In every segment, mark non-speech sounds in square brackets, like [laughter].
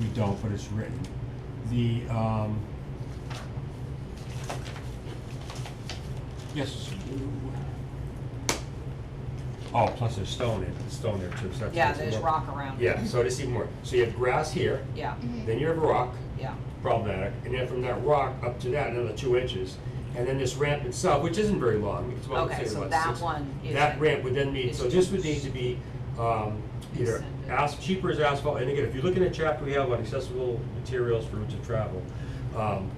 we don't, but it's written. The, um. Yes. Oh, plus there's stone in, stone there too, so that's. Yeah, that's there's more- rock around it. Yeah, so it's even more, so you have grass here, Yeah, then you have rock, yeah, problematic, and then from that rock up to that, another two inches. And then this ramp itself, which isn't very long, it's about, Okay, say, so about that six- one That isn't- ramp would then need, so this would need to be, um, either Extended. as, cheaper as asphalt, and again, if you're looking at chapter we have on accessible materials for routes of travel, um,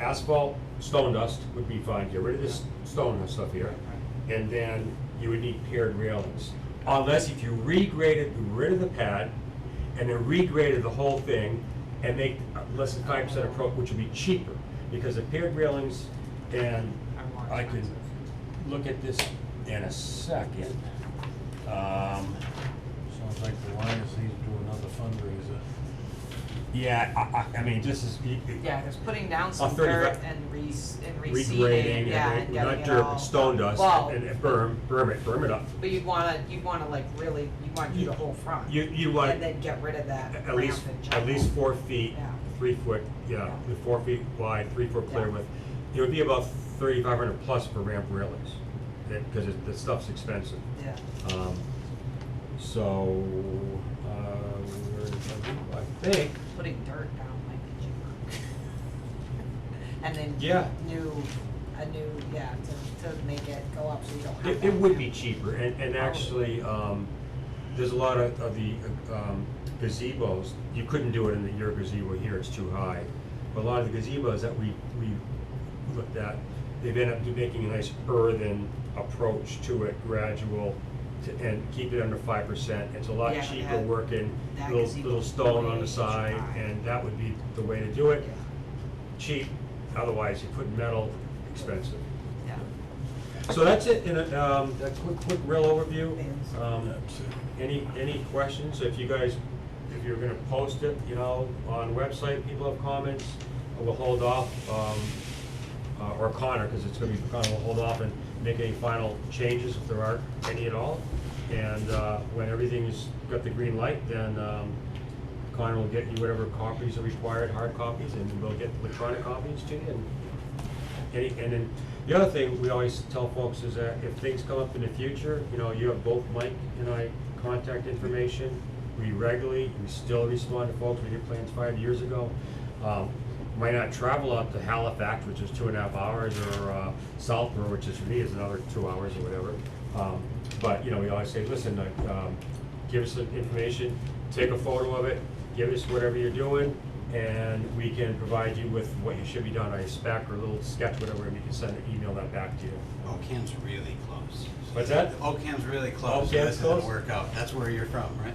asphalt, stone dust would be fine, get rid of this stone and stuff here. And then you would need paired railings, unless if you regraded, got rid of the pad, and then regraded the whole thing and make less than five percent approach, which would be cheaper, because the paired railings, and Are more I could expensive. look at this in a second. Um, Sounds like the Lions needs to do another fundraiser. yeah, I, I, I mean, this is. it- it- yeah, 'cause putting down some dirt 35 and re- and reseeding, Regrading yeah, and and, getting not it dirt, but all- stone dust Well, and and berm, berm it, berm it up. but you'd wanna, you'd wanna like really, you wanna do the whole front. You, you want. And then get rid of that ramp At least, and at jump. least four feet, Yeah. three foot, yeah, Yeah. four feet wide, three foot clear Yeah. width. It would be about thirty-five hundred plus for ramp railings, because the stuff's expensive. Yeah, Um, So, uh, where did I do- I think, putting dirt down might be cheaper. [laughs] And then Yeah. new, a new, yeah, to, to make it go up so you don't have. it, that it would ramp. be cheaper, and, and actually, um, there's a lot of, of the um, gazebos, you couldn't do it in the, your gazebo here, it's too high. But a lot of the gazebos that we, we looked at, they've ended up making a nice earthen approach to it, gradual, to, and keep it under five percent. It's a lot Yeah, cheaper that- working, that little, gazebo little stone on really the is side, high. and that would be the way to do Yeah, it. Cheap, otherwise you put metal, expensive. yeah. So that's it, in a, um, a quick, quick real overview. Yes. Um, any, any questions, if you guys, if you're gonna post it, you know, on website, people have comments, we'll hold off, um, uh, or Connor, cause it's gonna be for Connor, we'll hold off and make any final changes if there are any at all. And, uh, when everything's got the green light, then, um, Connor will get you whatever copies are required, hard copies, and we'll get electronic copies to you, and any, and then, the other thing we always tell folks is that if things come up in the future, you know, you have both Mike and I contact information. We regularly, we still respond to folks, we did plans five years ago. Um, Might not travel up to Halifax, which is two and a half hours, or uh, Southborough, which is for me is another two hours or whatever. Um, But, you know, we always say, listen, uh, um, give us the information, take a photo of it, give us whatever you're doing, and we can provide you with what you should be done, a spec or a little sketch, whatever, and we can send an email that back to you. Oakham's really close. What's that? Oakham's really close, so Oakham's this doesn't close? work out. That's where you're from, right?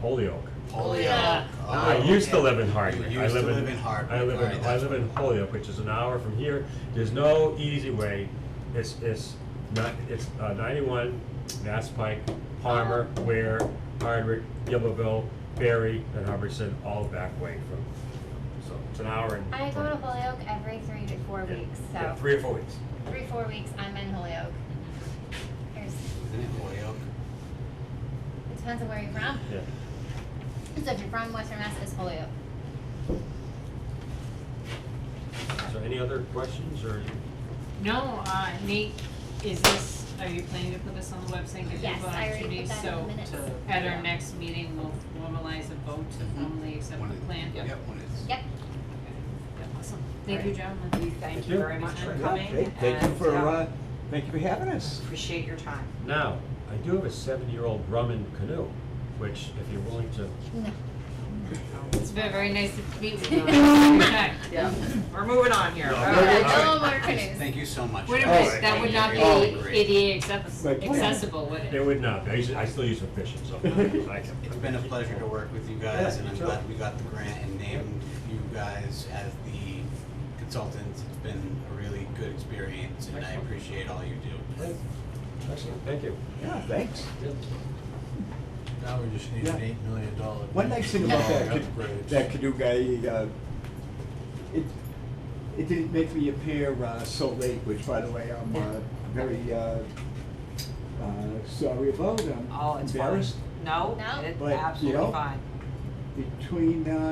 Holyoke. Holyoke. yeah. Oh, I used to okay. live in Hardwick. You I used to live in Hardwick. I live All right, in, I that's live what- in Holyoke, which is an hour from here. There's no easy way. It's, it's not, it's uh, ninety-one, Mass Pike, Palmer, Ware, Hardwick, Yellowville, Berry, and Hubbardson, all back way from, so it's an hour and. I go to Holyoke every three to four Yeah, weeks, yeah, so Three or four weeks. three, four weeks, I'm in Holyoke. There's, Isn't it Holyoke? it depends on where you're from. Yeah. So if you're from Western Mass, it's Holyoke. So any other questions or? No, uh, Nate, is this, are you planning to put this on the website, give Yes, people I already opportunity, put so that in the minutes. to- at yeah. our next meeting, we'll formalize a vote to Mm-hmm. Mhm. formally accept When the it- plan? Yep, when it's. Yep, Yeah, Awesome, thank you, Right. gentlemen. We thank you very much for coming Okay, Thank you and, for, yeah, uh, thank you for having us. Appreciate your time. Now, I do have a seven-year-old Brumman canoe, which if you're willing to, no. It's been very nice to meet with you. [laughs] Okay. Yeah, we're moving on here. No, All we're right. good. No more Thanks- canoes. Thank you so much. Wait a All minute, right. that would not be Oh, great. ADA access- Like, what? accessible, would it it? would not, be. I usually, I still use a fishing, so. It's been a pleasure to work with you guys, Yeah, and I'm sure. glad we got the grant and named you guys as the consultants. It's been a really good experience, and I Excellent. appreciate all you do. Excellent, thank you. Yeah, thanks. Now we just need Yeah. an eight million dollar. One nice thing about that, ca- Upgrades. that Canoe guy, uh, it, it didn't make me appear, uh, so late, which by the way, I'm, uh, very, uh, uh, sorry about, I'm Oh, it's fine. embarrassed. No, No? it's But, you absolutely know, fine. Between, uh,